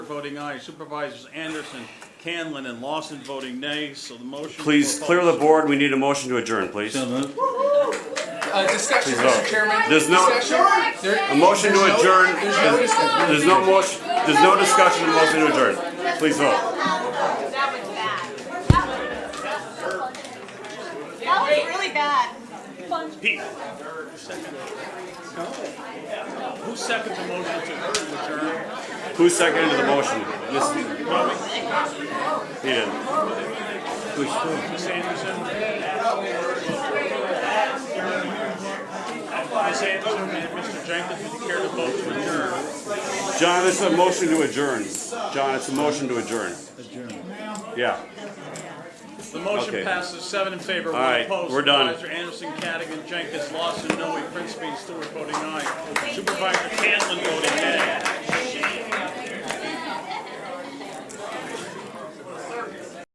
voting aye. Supervisors Anderson, Canlin, and Lawson voting nay, so the motion. Please clear the board. We need a motion to adjourn, please. So A moved. Uh, discussion, Please Mr. vote. Chairman. There's no- Discussion? There- motion to adjourn. There's no discussion. There's no motion, there's no discussion, a motion to adjourn. Please vote. That was bad. That was, that was really bad. Pete. Who seconded the motion to adjourn? Who seconded the motion? Miss He didn't. Miss Anderson? Miss Anderson and Mr. Jenkins, would you care to vote to adjourn? John, it's a motion to adjourn. John, it's a motion to adjourn. Adjourn. Yeah. The motion Okay. passes seven in favor, All one right, opposed. we're done. Supervisor Anderson, Cattigan, Jenkins, Lawson, Noe, Princeby, and Stewart voting aye. Supervisor Canlin voting nay.